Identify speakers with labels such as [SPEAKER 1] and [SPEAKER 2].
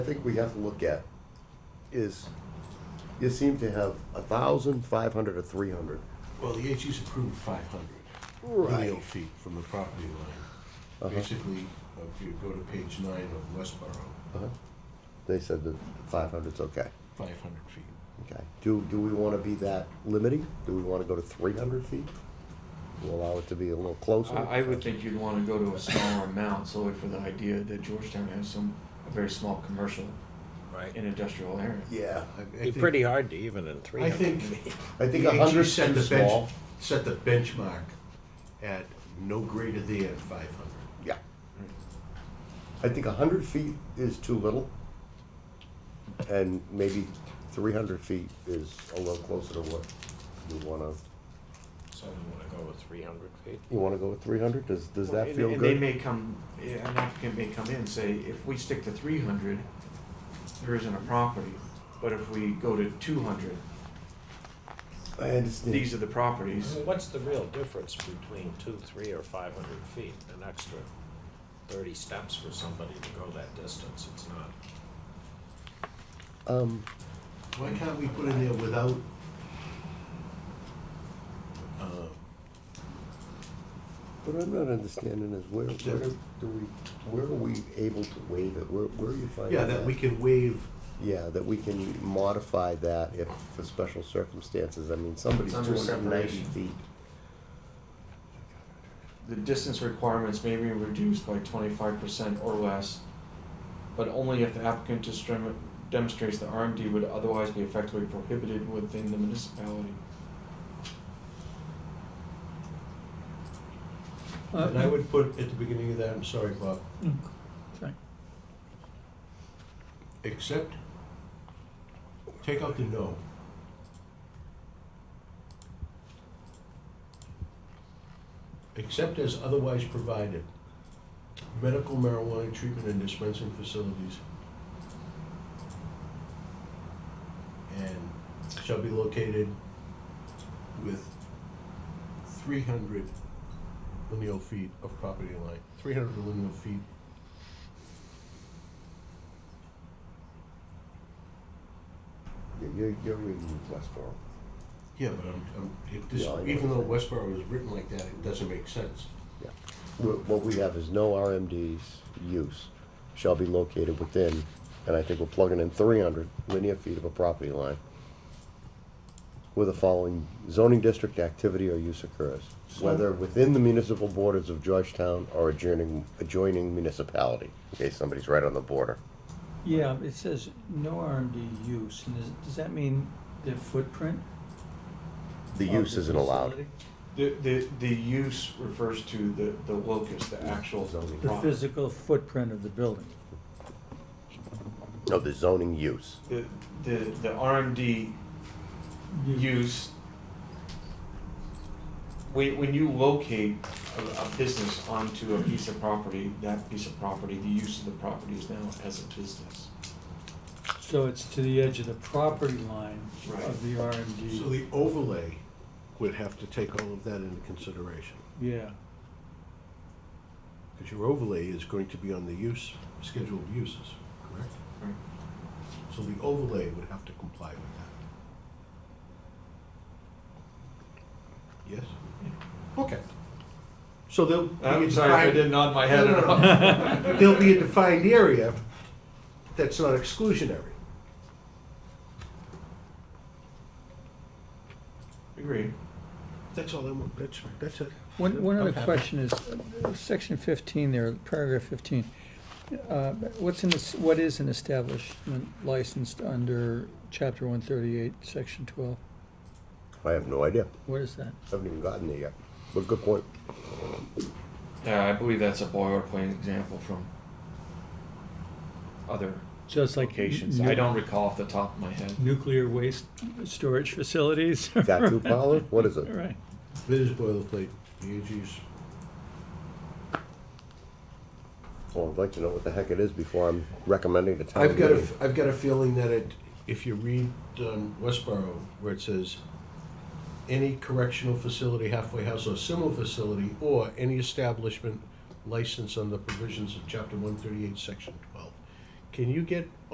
[SPEAKER 1] I think we have to look at is, you seem to have a thousand, five hundred, or three hundred.
[SPEAKER 2] Well, the HU's approved five hundred lineal feet from the property
[SPEAKER 1] Uh-huh.
[SPEAKER 2] line. Basically, if you go to page nine of Westboro,
[SPEAKER 1] Uh-huh. They said that five hundred's okay,
[SPEAKER 2] five hundred feet.
[SPEAKER 1] okay. Do, do we wanna be that limiting? Do we wanna go to three hundred feet? We'll Allow it to be a little closer?
[SPEAKER 3] I, I would think you'd wanna go to a smaller amount solely for the idea that Georgetown has some, a very small commercial
[SPEAKER 4] Right.
[SPEAKER 3] and industrial area.
[SPEAKER 1] Yeah,
[SPEAKER 2] I- I
[SPEAKER 4] Be
[SPEAKER 2] think-
[SPEAKER 4] pretty hard to even in three
[SPEAKER 2] I
[SPEAKER 4] hundred
[SPEAKER 2] think.
[SPEAKER 4] feet.
[SPEAKER 1] I think
[SPEAKER 2] the
[SPEAKER 1] a
[SPEAKER 2] HU
[SPEAKER 1] hundred's
[SPEAKER 2] set
[SPEAKER 1] too
[SPEAKER 2] the bench-
[SPEAKER 1] small.
[SPEAKER 2] Set the benchmark at no greater than five hundred.
[SPEAKER 1] Yeah. I think a hundred feet is too little. And maybe three hundred feet is a little closer to what you wanna,
[SPEAKER 4] So you wanna go with three hundred feet?
[SPEAKER 1] you wanna go with three hundred? Does, does
[SPEAKER 3] Well,
[SPEAKER 1] that
[SPEAKER 3] and-
[SPEAKER 1] feel
[SPEAKER 3] And they
[SPEAKER 1] good?
[SPEAKER 3] may come, yeah, an applicant may come in and say, if we stick to three hundred, there isn't a property, but if we go to two hundred,
[SPEAKER 1] I understand.
[SPEAKER 3] these are the properties.
[SPEAKER 4] What's the real difference between two, three, or five hundred feet? An extra thirty steps for somebody to go that distance, it's not.
[SPEAKER 1] Um,
[SPEAKER 2] Why can't we put in there without? uh,
[SPEAKER 1] what I'm not understanding is where, where do we, where are we able to waive it? Where, where are you finding
[SPEAKER 2] Yeah,
[SPEAKER 1] that?
[SPEAKER 2] that we can waive,
[SPEAKER 1] Yeah, that we can modify that if, for special circumstances. I mean, somebody's
[SPEAKER 3] It's under
[SPEAKER 1] two hundred and ninety
[SPEAKER 3] separation.
[SPEAKER 1] feet.
[SPEAKER 3] The distance requirements may be reduced by twenty-five percent or less, but only if the applicant distrem- demonstrates the RMD would otherwise be effectively prohibited within the municipality.
[SPEAKER 5] Uh,
[SPEAKER 2] and I would put at the beginning of that, I'm sorry, Bob, except, take out the no. Except as otherwise provided, medical marijuana treatment and dispensing facilities and shall be located with three hundred lineal feet of property line, three hundred lineal feet
[SPEAKER 1] You're, you're reading Westboro.
[SPEAKER 2] Yeah, but I'm, I'm, if this,
[SPEAKER 1] Yeah, I know
[SPEAKER 2] even though
[SPEAKER 1] what you're
[SPEAKER 2] Westboro is written like that, it doesn't make sense.
[SPEAKER 1] Yeah. Wh- What we have is no RMDs use shall be located within, and I think we're plugging in three hundred linear feet of a property line where the following zoning district activity or use occurs, whether within the municipal borders of Georgetown or adjoining, adjoining municipality. Okay, somebody's right on the border.
[SPEAKER 5] Yeah, it says no RMD use, and does, does that mean the footprint?
[SPEAKER 1] The
[SPEAKER 5] of
[SPEAKER 1] use isn't allowed.
[SPEAKER 5] facility?
[SPEAKER 3] The, the, the use refers to the, the locus, the actual
[SPEAKER 1] Zoning.
[SPEAKER 5] The
[SPEAKER 3] property.
[SPEAKER 5] physical footprint of the building.
[SPEAKER 1] No, the zoning use.
[SPEAKER 3] The, the, the RMD use, when, when you locate a, a business onto a piece of property, that piece of property, the use of the property is now as a business.
[SPEAKER 5] So it's to the edge of the property line
[SPEAKER 3] Right.
[SPEAKER 5] of the
[SPEAKER 2] So
[SPEAKER 5] RMD,
[SPEAKER 2] the overlay would have to take all of that into consideration,
[SPEAKER 5] yeah.
[SPEAKER 2] because your overlay is going to be on the use, scheduled uses, correct?
[SPEAKER 3] Right.
[SPEAKER 2] So the overlay would have to comply with that. Yes? Okay. So there'll be a
[SPEAKER 3] I'm sorry if I
[SPEAKER 2] defined-
[SPEAKER 3] didn't nod my
[SPEAKER 2] No,
[SPEAKER 3] head at
[SPEAKER 2] no,
[SPEAKER 3] all.
[SPEAKER 2] no. There'll be a defined area that's not exclusionary.
[SPEAKER 3] Agreed.
[SPEAKER 2] That's all I want, that's, that's it.
[SPEAKER 5] One, one other
[SPEAKER 2] Okay.
[SPEAKER 5] question is, uh, section fifteen there, paragraph fifteen, uh, what's in this, what is an establishment licensed under chapter one thirty-eight, section twelve?
[SPEAKER 1] I have no idea.
[SPEAKER 5] What is that?
[SPEAKER 1] Haven't even gotten there yet. But good point.
[SPEAKER 3] Yeah, I believe that's a boilerplate example from other
[SPEAKER 5] Just like.
[SPEAKER 3] locations. I
[SPEAKER 5] nu-
[SPEAKER 3] don't recall off the top of my head.
[SPEAKER 5] Nuclear waste storage facilities.
[SPEAKER 1] Tattoo parlor? What is it?
[SPEAKER 5] Right.
[SPEAKER 2] It is boilerplate, the AG's.
[SPEAKER 1] Well, I'd like to know what the heck it is before I'm recommending to town
[SPEAKER 2] I've got a,
[SPEAKER 1] meeting.
[SPEAKER 2] f- I've got a feeling that it, if you read um, Westboro, where it says, any correctional facility, halfway house, or similar facility, or any establishment licensed under provisions of chapter one thirty-eight, section twelve. Can you get